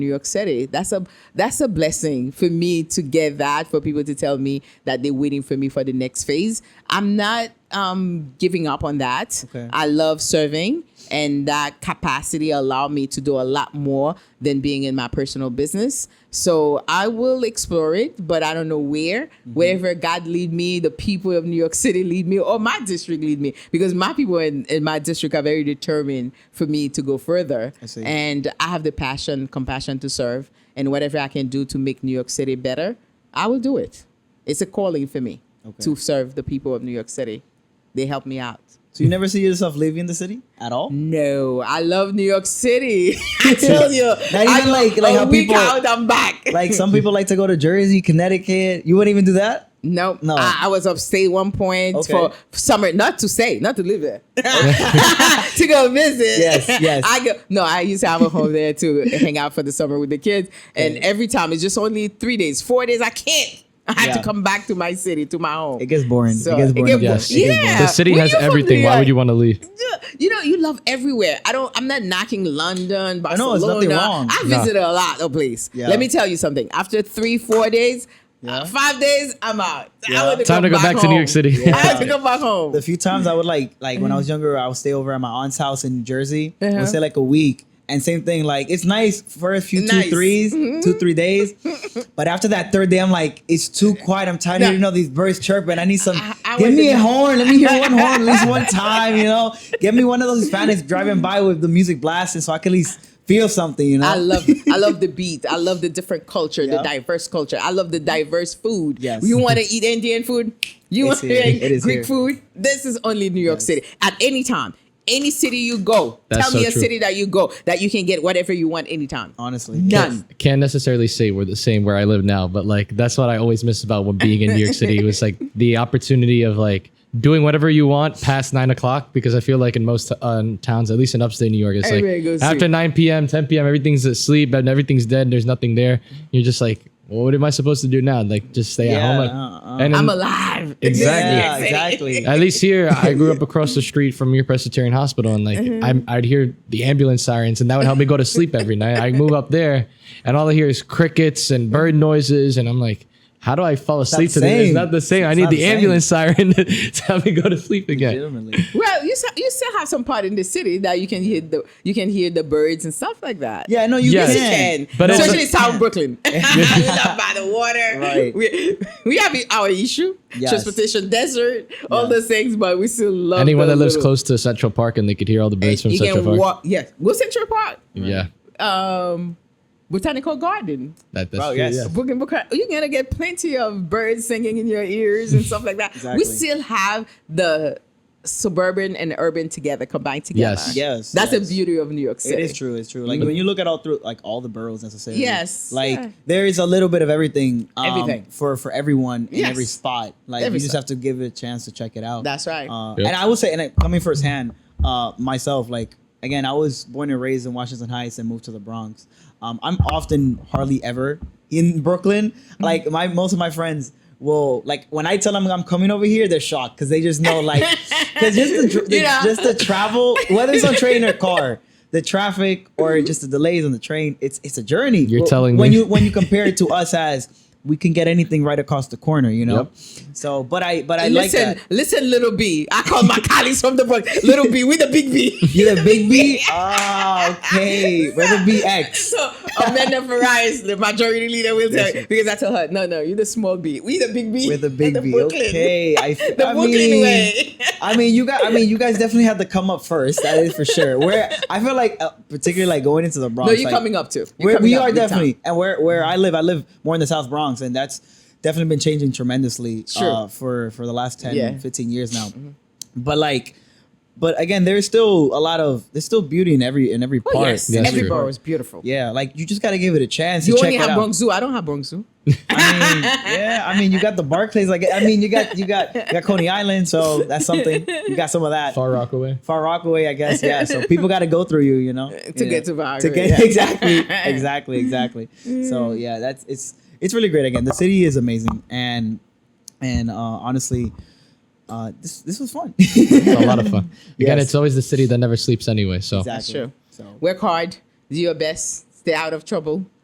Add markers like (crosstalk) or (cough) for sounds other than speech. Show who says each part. Speaker 1: New York City. That's a that's a blessing for me to get that for people to tell me that they're waiting for me for the next phase. I'm not um, giving up on that.
Speaker 2: Okay.
Speaker 1: I love serving, and that capacity allowed me to do a lot more than being in my personal business. So I will explore it, but I don't know where.
Speaker 2: Mm-hmm.
Speaker 1: Wherever God lead me, the people of New York City lead me, or my district lead me, because my people in, in my district are very determined for me to go further.
Speaker 2: I see.
Speaker 1: And I have the passion, compassion to serve, and whatever I can do to make New York City better, I will do it. It's a calling for me
Speaker 2: Okay.
Speaker 1: to serve the people of New York City. They help me out.
Speaker 2: So you never see yourself leaving the city at all?
Speaker 1: No, I love New York City. (laughs) I tell you,
Speaker 2: Not
Speaker 1: I
Speaker 2: even
Speaker 1: go
Speaker 2: like- like
Speaker 1: a
Speaker 2: how
Speaker 1: week
Speaker 2: people-
Speaker 1: out, I'm back.
Speaker 2: Like some people like to go to Jersey, Connecticut. You wouldn't even do that?
Speaker 1: no, no.
Speaker 2: No.
Speaker 1: I, I was upstate one point
Speaker 2: Okay.
Speaker 1: for summer, not to say, not to live there, (laughs) to go visit.
Speaker 2: Yes, yes.
Speaker 1: I go. No, I used to have a home there to hang out for the summer with the kids, and every time it's just only three days, four days. I can't. I have
Speaker 2: Yeah.
Speaker 1: to come back to my city, to my home.
Speaker 2: It gets boring.
Speaker 1: So,
Speaker 2: it gets
Speaker 1: it
Speaker 2: boring.
Speaker 1: get-
Speaker 3: (laughs)
Speaker 1: (laughs)
Speaker 3: Yes.
Speaker 1: Yeah.
Speaker 3: The city
Speaker 1: When
Speaker 3: has
Speaker 1: you're from
Speaker 3: everything.
Speaker 1: New
Speaker 3: Why
Speaker 1: York-
Speaker 3: would you want to leave?
Speaker 1: you know, you love everywhere. I don't. I'm not knocking London,
Speaker 2: know,
Speaker 1: Barcelona.
Speaker 2: there's nothing wrong.
Speaker 1: I
Speaker 3: No.
Speaker 1: visited a lot of places.
Speaker 2: Yeah.
Speaker 1: Let me tell you something. After three, four days,
Speaker 2: Yeah.
Speaker 1: uh, five days, I'm out.
Speaker 2: Yeah.
Speaker 1: I want to
Speaker 3: Time
Speaker 1: go
Speaker 3: to go back to New
Speaker 1: home.
Speaker 3: York City.
Speaker 1: I have to go back home.
Speaker 2: The few times I would like, like when I was younger, I would stay over at my aunt's house in New Jersey. I
Speaker 1: Uh-huh.
Speaker 2: would stay like a week. And same thing, like it's nice for a few two
Speaker 1: Nice. Mm-hmm.
Speaker 2: threes, two three
Speaker 1: (laughs)
Speaker 2: days, but after that third day, I'm like, it's too quiet. I'm tired of
Speaker 1: No.
Speaker 2: hearing all these birds chirping. I need some.
Speaker 1: I- I
Speaker 2: give
Speaker 1: was
Speaker 2: me
Speaker 1: in
Speaker 2: a
Speaker 1: the-
Speaker 2: horn. Let me hear one horn at
Speaker 1: (laughs)
Speaker 2: least one time. You know, give me one of those Hispanics driving by with the music blasting, so I can at least feel something. You know,
Speaker 1: I love I love
Speaker 2: (laughs)
Speaker 1: the beat. I love the different culture,
Speaker 2: Yeah.
Speaker 1: the diverse culture. I love the diverse food.
Speaker 2: Yes.
Speaker 1: You
Speaker 2: (laughs)
Speaker 1: want to eat Indian food? You want
Speaker 2: It's
Speaker 1: to
Speaker 2: here.
Speaker 1: eat
Speaker 2: It is
Speaker 1: Greek
Speaker 2: here.
Speaker 1: food? This is only New York
Speaker 2: Yes.
Speaker 1: City. At any time, any city you go,
Speaker 3: That's
Speaker 1: tell me
Speaker 3: so
Speaker 1: a
Speaker 3: true.
Speaker 1: city that you go that you can get whatever you want anytime.
Speaker 2: honestly.
Speaker 1: None.
Speaker 3: (laughs) Can't necessarily say we're the same where I live now, but like that's what I always miss about when being in New York City was
Speaker 1: (laughs)
Speaker 3: like the opportunity of like doing whatever you want past nine o'clock because I feel like in most uh, towns, at least in upstate New York, it's
Speaker 1: Everybody goes
Speaker 3: like after
Speaker 1: sleep.
Speaker 3: nine p.m., ten p.m., everything's asleep and everything's dead. And there's nothing there. You're just like, well, what am I supposed to do now? Like just stay at
Speaker 2: Yeah,
Speaker 3: home. Like,
Speaker 2: uh-uh.
Speaker 3: and
Speaker 1: I'm
Speaker 3: then-
Speaker 1: alive. (laughs)
Speaker 3: Exactly.
Speaker 2: Yeah, exactly.
Speaker 3: at least here
Speaker 2: (laughs)
Speaker 3: i grew up across the street from your presbyterian hospital and like
Speaker 2: Mm-hmm.
Speaker 3: I'm, i'd hear the ambulance sirens and that would help me go to sleep every night i move up there and all i hear is crickets and bird noises and i'm like how do i fall asleep
Speaker 2: the
Speaker 3: to this it's
Speaker 2: same.
Speaker 3: not the same i
Speaker 2: It's
Speaker 3: need
Speaker 2: not the
Speaker 3: the
Speaker 2: same.
Speaker 3: ambulance siren (laughs) to help me go to sleep again
Speaker 2: Legitimately.
Speaker 1: Well, you s- you still have some part in the city that you can hear the you can hear the birds and stuff like that.
Speaker 2: Yeah, no, you
Speaker 3: Yes,
Speaker 1: Yes,
Speaker 3: you
Speaker 1: you
Speaker 2: can.
Speaker 1: can.
Speaker 3: But it's-
Speaker 1: Especially South
Speaker 3: (laughs)
Speaker 1: Brooklyn. (laughs) we live by the water.
Speaker 2: Right.
Speaker 1: We, we have our issue.
Speaker 2: Yes.
Speaker 1: Transportation, desert, all those things, but we still love
Speaker 3: anyone
Speaker 1: the
Speaker 3: that lives
Speaker 1: little-
Speaker 3: close to central park and they could hear all the birds from
Speaker 1: You
Speaker 3: central
Speaker 1: can
Speaker 3: park
Speaker 1: walk. Yes. Go Central Park.
Speaker 3: yeah
Speaker 1: Um, Botanical Garden.
Speaker 3: that, that's
Speaker 2: Wow,
Speaker 3: true,
Speaker 2: yes.
Speaker 3: yeah.
Speaker 1: Booking book, you're gonna get plenty of birds singing in your ears and stuff like
Speaker 3: (laughs)
Speaker 1: that.
Speaker 2: Exactly.
Speaker 1: We still have the suburban and urban together combined together.
Speaker 3: Yes.
Speaker 2: Yes,
Speaker 1: that's
Speaker 2: yes.
Speaker 1: the beauty of New York City.
Speaker 2: It is true. It's true. Like when you look at all through, like all the boroughs necessarily.
Speaker 1: Yes,
Speaker 2: Like
Speaker 1: yeah.
Speaker 2: there is a little bit of everything. um,
Speaker 1: Everything.
Speaker 2: for for everyone in
Speaker 1: Yes.
Speaker 2: every spot. Like
Speaker 1: Every
Speaker 2: you just
Speaker 1: spot.
Speaker 2: have to give it a chance to check it out.
Speaker 1: That's right.
Speaker 2: Uh,
Speaker 3: Yep.
Speaker 2: And I will say, and I, coming firsthand, uh, myself, like again, I was born and raised in Washington Heights and moved to the Bronx. Um, I'm often hardly ever in Brooklyn.
Speaker 1: Mm-hmm.
Speaker 2: Like my most of my friends. will like when I tell them I'm coming over here, they're shocked because they just
Speaker 1: (laughs)
Speaker 2: know, like, because just the, dr-
Speaker 1: You know.
Speaker 2: just the travel, whether
Speaker 1: (laughs)
Speaker 2: it's on train or car, the traffic or just the delays on the train, it's it's a journey.
Speaker 3: You're
Speaker 2: Well,
Speaker 3: telling
Speaker 2: when
Speaker 3: me.
Speaker 2: you when you compare it to us as we can get anything right across the corner, you know.
Speaker 3: Yep.
Speaker 2: So, but I but I like
Speaker 1: listen,
Speaker 2: that.
Speaker 1: listen, little B. I call my (laughs) colleagues from the book little B. We the big B. (laughs)
Speaker 2: You the big B? Ah, okay. We're the BX.
Speaker 1: So Amanda Ferraris, the majority leader, will tell
Speaker 2: Yes,
Speaker 1: you because I tell her, no, no, you're the small B. We the big B.
Speaker 2: We're
Speaker 1: (laughs)
Speaker 2: the big B.
Speaker 1: Brooklyn.
Speaker 2: Okay. I,
Speaker 1: (laughs) The
Speaker 2: I
Speaker 1: Brooklyn
Speaker 2: mean, (laughs)
Speaker 1: way. (laughs)
Speaker 2: I mean, you got. I mean, you guys definitely had to come up first. That is for sure. Where I feel like, uh, particularly like going into the Bronx.
Speaker 1: No, you're
Speaker 2: like,
Speaker 1: coming up too. You're
Speaker 2: We're,
Speaker 1: coming
Speaker 2: we
Speaker 1: up Mm-hmm.
Speaker 2: are
Speaker 1: big time.
Speaker 2: definitely, and where where I live, I live more in the South Bronx, and that's definitely been changing tremendously
Speaker 1: Sure.
Speaker 2: uh, for for the last 10,
Speaker 1: Yeah. Mm-hmm.
Speaker 2: 15 years now. But like, but again, there's still a lot of there's still beauty in every in every part.
Speaker 1: Oh, yes,
Speaker 3: That's
Speaker 1: every
Speaker 3: true.
Speaker 1: borough is beautiful.
Speaker 2: Yeah, like you just got to give it a chance.
Speaker 1: You
Speaker 2: to
Speaker 1: only
Speaker 2: check it
Speaker 1: have
Speaker 2: (laughs) out.
Speaker 1: Bronx Zoo. I don't have Bronx Zoo.
Speaker 2: I mean, yeah, I mean, you got the Barclays. Like, I mean, you got you got you got Coney Island, so that's something. You got some of that. Far,
Speaker 3: far rockaway
Speaker 2: Rockaway, I guess. Yeah.
Speaker 1: (laughs)
Speaker 2: So people got to go through you, you know,
Speaker 1: To
Speaker 2: Yeah.
Speaker 1: get to Rockaway, Mm.
Speaker 2: To get
Speaker 1: yeah.
Speaker 2: (laughs) exactly,
Speaker 1: (laughs)
Speaker 2: exactly, exactly. So yeah, that's it's it's really great. Again, the city is amazing, and and uh, honestly, uh, this this was fun.
Speaker 3: it's a lot of fun again
Speaker 2: Yes.
Speaker 3: it's always the city that never sleeps anyway
Speaker 2: (laughs)
Speaker 3: so
Speaker 2: Exactly.
Speaker 1: That's true.
Speaker 2: So
Speaker 1: Work hard, do your best, Stay out of trouble.